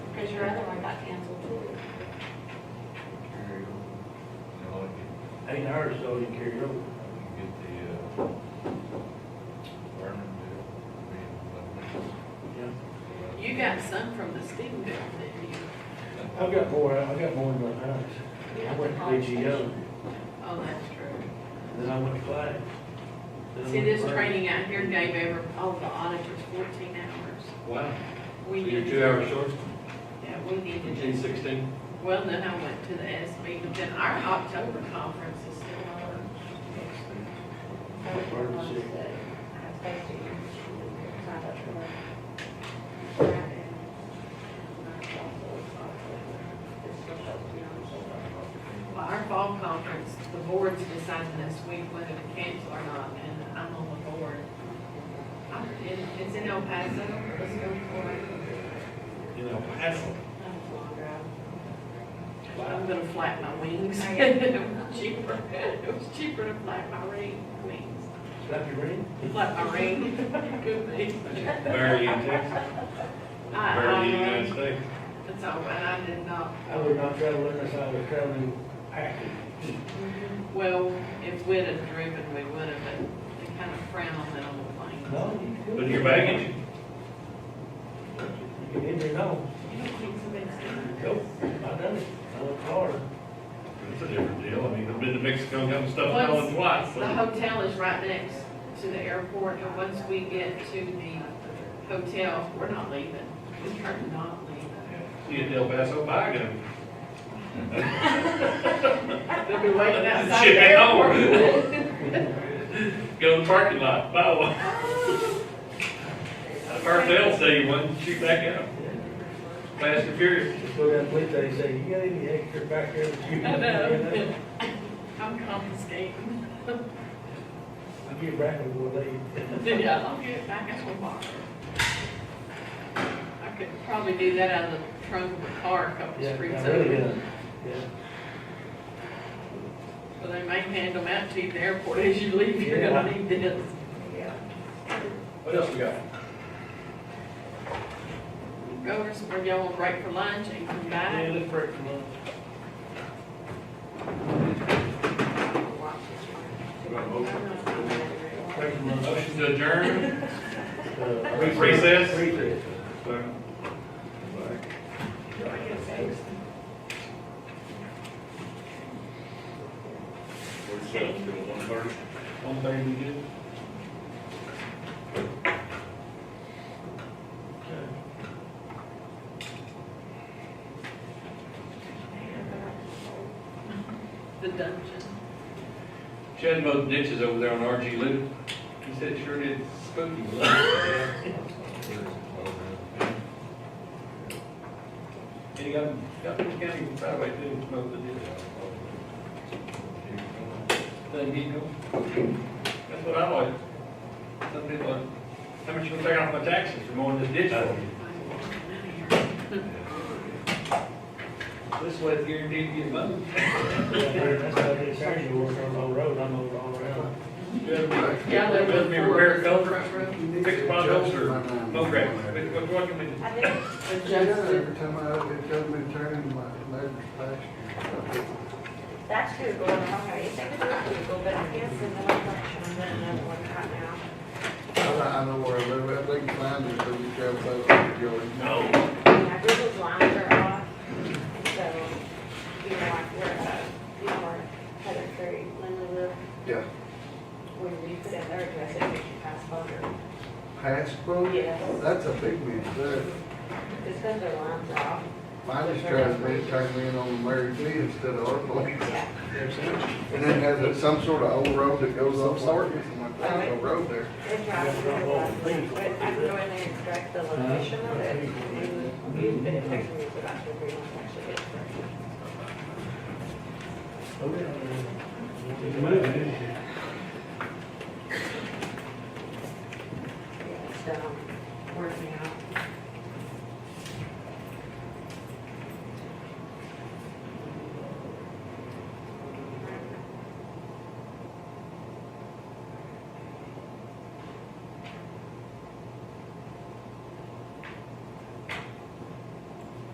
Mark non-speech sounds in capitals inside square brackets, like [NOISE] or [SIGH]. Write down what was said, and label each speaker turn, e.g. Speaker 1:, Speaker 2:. Speaker 1: because your other one got canceled too.
Speaker 2: There you go. Now I can,
Speaker 3: Ain't ours though, you carry over.
Speaker 2: I can get the, uh, Vernon bill, I mean,
Speaker 3: Yeah.
Speaker 2: eleven.
Speaker 4: You got some from the steam bill, didn't you?
Speaker 3: I've got more, I got more in my house. I went to BGO,
Speaker 4: Oh, that's true.
Speaker 3: then I went to Flag. then I
Speaker 4: See,
Speaker 3: went to
Speaker 4: this
Speaker 3: Flag.
Speaker 4: training out here gave every, all the auditors fourteen hours.
Speaker 5: Wow, so
Speaker 4: We
Speaker 5: you're
Speaker 4: need-
Speaker 5: two hours short,
Speaker 4: Yeah, we need to
Speaker 5: eighteen
Speaker 4: do.
Speaker 5: sixteen?
Speaker 4: Well, then I went to the SB, but then our October conference is still on.
Speaker 1: Those were the ones that I supposed to sign up for. Right, and ours also is October. It's supposed to be on October.
Speaker 4: Well, our fall conference, the board's deciding this week whether to cancel or not, and I'm on the board. I'm in, it's in El Paso, let's go for it.
Speaker 3: You know,
Speaker 1: That's
Speaker 3: Paso.
Speaker 1: a long drive.
Speaker 4: I'm gonna flap my wings. [LAUGHS]
Speaker 1: I am.
Speaker 4: It was cheaper, it was cheaper to flap my ring, wings,
Speaker 3: Slap your ring?
Speaker 4: flap my ring, good thing.
Speaker 5: Where are you in Texas?
Speaker 4: I-
Speaker 5: Where are you in the
Speaker 4: I-
Speaker 5: United States?
Speaker 4: That's all, and I did not,
Speaker 3: I would not travel unless I was traveling packing.
Speaker 4: well, if we'd have driven, we would have, but they kind of frown on that on the plane.
Speaker 3: No, you could.
Speaker 5: With your baggage?
Speaker 3: You can enter, no.
Speaker 4: You don't think somebody's doing it?
Speaker 3: Nope, I done it. I went to Florida.
Speaker 5: It's a different deal, I mean, I've been to Mexico, got my stuff going twice.
Speaker 4: The
Speaker 5: so-
Speaker 4: hotel is right next to the airport, and once we get to the hotel, we're not leaving. We are not leaving.
Speaker 5: See you at El Paso, bye, go.
Speaker 4: They'll be waiting outside the
Speaker 5: Shit, no. [LAUGHS]
Speaker 4: airport.
Speaker 5: Go to the parking lot, bye. one.
Speaker 4: Oh.
Speaker 5: I've heard they'll say you one, shoot back out. Fast and furious.
Speaker 3: Just go down to police station, say, you got any extra back there that you?
Speaker 4: [LAUGHS] I know.
Speaker 3: can-"
Speaker 4: I'm confiscating.
Speaker 3: I'll get back in one day.
Speaker 4: Yeah, I'll get it back out tomorrow. I could probably do that out of the trunk of a car a couple
Speaker 3: Yeah,
Speaker 4: streets
Speaker 3: I really
Speaker 4: over.
Speaker 3: done. Yeah.
Speaker 4: So they may hand them out to you at the airport as you leave, you're gonna need this.
Speaker 5: What else we got?
Speaker 4: Go over somewhere, y'all want to break for lunch and come back.
Speaker 3: Yeah, look for it from us. Break from us.
Speaker 5: Motion to
Speaker 4: [LAUGHS]
Speaker 5: adjourn?
Speaker 3: Uh,
Speaker 5: Recess?
Speaker 3: Recess.
Speaker 5: One thing we did.
Speaker 3: Okay.
Speaker 4: The dungeon.
Speaker 5: Chad mowed ditches over there on RG Loop. He said it sure did spooky. And he got, got the county highway too, mowed the ditch. Doesn't get going. That's what I like. Some people, like, how much you gonna take off my taxes for mowing this ditch for me? This way it's guaranteed to get mowed.
Speaker 3: Yeah, That's how they charge you work on the road, I'm over all around.
Speaker 4: Yeah,
Speaker 5: Yeah,
Speaker 4: they
Speaker 5: let me repair a culvert. Fix potholes or mow
Speaker 6: Mograph.
Speaker 5: grass, but Oh, what do you want me to do?
Speaker 1: I think
Speaker 6: Every time I, it tells me to turn in my neighbor's pasture.
Speaker 1: that's who go on, okay, if they could do it, go, but I guess in the election, I'm running another one right now.
Speaker 6: I, I know where I live, I think mine is, but you can't find it, Joey.
Speaker 5: No.
Speaker 1: Yeah, Google's lines are off, so, you know, like where, uh, you know, where Heather Curry, Linda live,
Speaker 6: Yeah.
Speaker 1: when you put in their address, it makes you pass over.
Speaker 6: Hasbro?
Speaker 1: Yes.
Speaker 6: That's a big one, there.
Speaker 1: It's because their lines are off.
Speaker 6: Mine is trying to make, turn me in on Mary Lee instead of our place.
Speaker 1: Yeah.
Speaker 6: And then has it some sort of old road that goes up north, it's like, there's no road there.
Speaker 1: They drive through their lines, but I can go in there and extract the location of it. and You put it next to me, so that's where we actually get it.
Speaker 3: Oh, yeah.
Speaker 1: um,